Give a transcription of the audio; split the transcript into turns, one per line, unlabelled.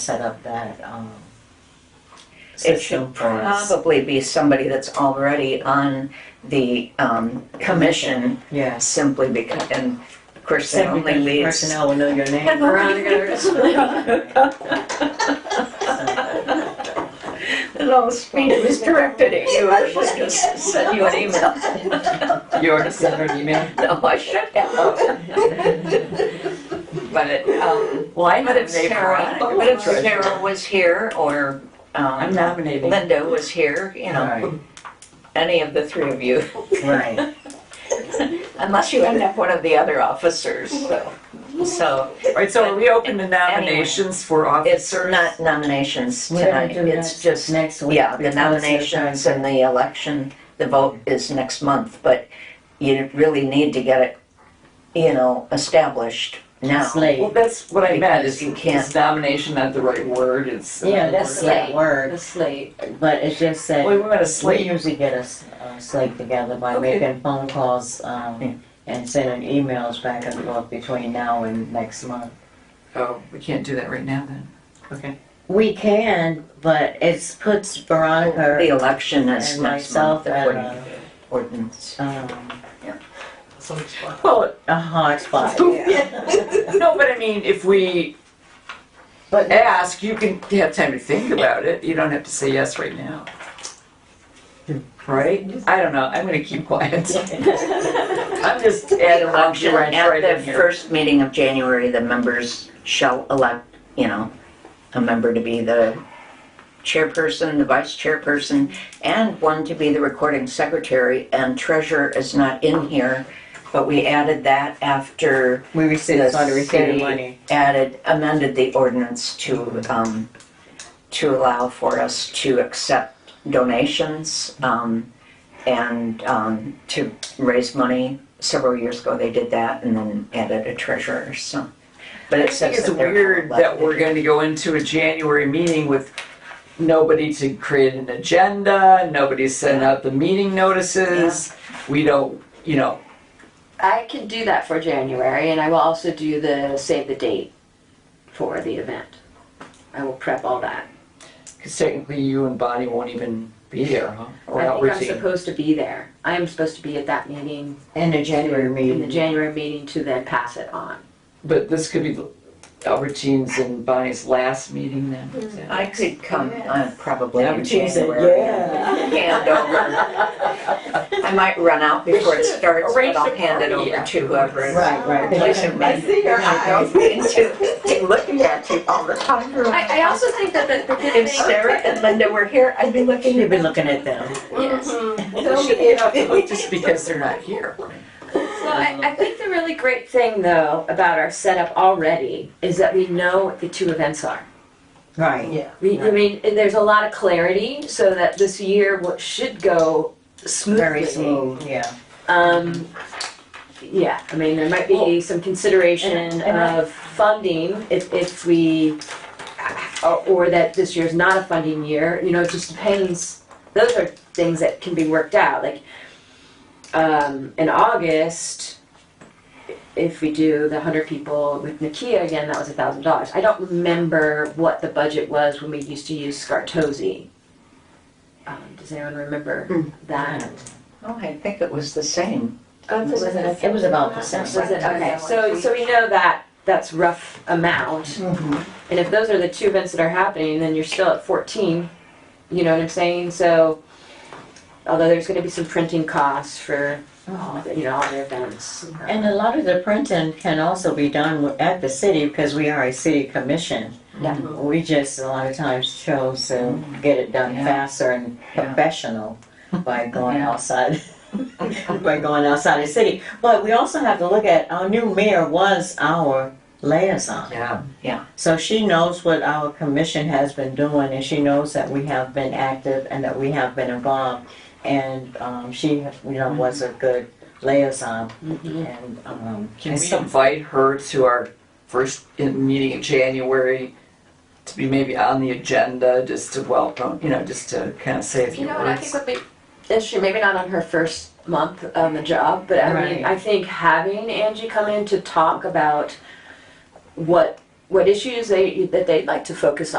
set up that, um,
It should
system for us.
probably be somebody that's already on the um, commission,
Yes.
simply because, and of course, that
Secretary
only leaves.
Personnel will know your name. uh,
Little speech was directed at you, I should just send you an email.
You already sent her an email?
No, I should have. But it, um,
Well, I know
but if Sarah, but if Sarah was here, or
I'm
um,
nominating.
Linda was here, you know, any of the three of you.
Right,
Unless you end up one of the other officers, so. So
All right, so are we open to
nominations
nominations for
it's
officers?
not nominations
We're gonna
tonight,
do
it's
that
just,
next week.
yeah, the
because
nominations and the election, the vote is next month, but you really need to get it, you know, established now.
It's late.
Well, that's what I meant, is
You can't-
is nomination not the right word? It's.
Yeah, that's
Wait,
that word. That's late. But it's just that.
we went to
We
sleep.
usually get us uh, slate together by
Okay.
making phone calls um, and sending emails back and forth between now and next month.
Oh, we can't do that right now then. Okay.
We can, but it puts
The
Veronica
election is
and
next month,
myself
the
at
ordin-
a,
ordinance.
um,
Well,
a hard spot.
no, but I mean, if we
But
ask, you can have time to think about it. You don't have to say yes right now. Right? I don't know. I'm gonna keep quiet. I'm just adding
Election
luxury right
At
in
the
here.
first meeting of January, the members shall elect, you know, a member to be the chairperson, the vice chairperson, and one to be the recording secretary, and treasurer is not in here, but we added that after,
we received,
The
started to receive
city-
money.
added, amended the ordinance to, um, to allow for us to accept donations, um, and, um, to raise money. Several years ago, they did that and then added a treasurer, so. But
I
it
think
says
it's
that they're all
weird that
elected.
we're going to go into a January meeting with nobody to create an agenda, nobody sent out the meeting notices. We don't, you know,
I can do that for January, and I will also do the save the date for the event. I will prep all that.
because technically you and Bonnie won't even be there, huh? Or
I think I'm
Albertine.
supposed to be there. I am supposed to be at that meeting,
In the January
in the
meeting.
January meeting, to then pass it on.
But this could be Albertine's and Bonnie's last meeting then. is that-
I could come, uh, probably in
She said,
January. Hand over. I might run out before it starts, but
arrange
I'll
the
hand it
party.
over to whoever is.
Right, right.
Listen, man,
see your
my girlfriend's into- looking at you all the time.
I, I also think that the, the good
If Sarah and Linda were here, I'd be looking
You've
at
been
them.
looking at them.
Well, She ain't off the
Oh,
hook just because they're not here.
So I, I think the really great thing, though, about our setup already is that we know what the two events are.
Right.
We, I mean, and there's a lot of clarity, so that this year what should go smoothly.
Very smooth, yeah.
Um, yeah, I mean, there might be some consideration
And- and I-
of funding if, if we, or, or that this year's not a funding year, you know, it just depends. Those are things that can be worked out, like, um, in August, if we do the hundred people with Nakia again, that was a thousand dollars. I don't remember what the budget was when we used to use Scartosi. Um, does anyone remember that?
Oh, I think it was the same.
It was about the same.
Was it, okay, so, so we know that, that's rough amount. And if those are the two events that are happening, then you're still at fourteen, you know what I'm saying? So, although there's gonna be some printing costs for, all the- you know, all the events.
And a lot of the printing can also be done wi- at the city because we are a city commission.
Yeah.
We just a lot of times chose to get it done
Yeah.
faster and
Yeah.
professional by going
Yeah.
outside, by going outside the city. But we also have to look at, our new mayor was our liaison.
Yeah.
So she knows what our commission has been doing and she knows that we have been active and that we have been involved. And um, she, you know, was a good liaison and um,
Can
and
we
so-
invite her to our first in- meeting in January to be maybe on the agenda, just to welcome, you know, just to kind of say a few
You know what, I think
words?
would be, and she, maybe not on her first month on the job, but I mean,
Right.
I think having Angie come in to talk about what what issues they, that they'd like to focus on.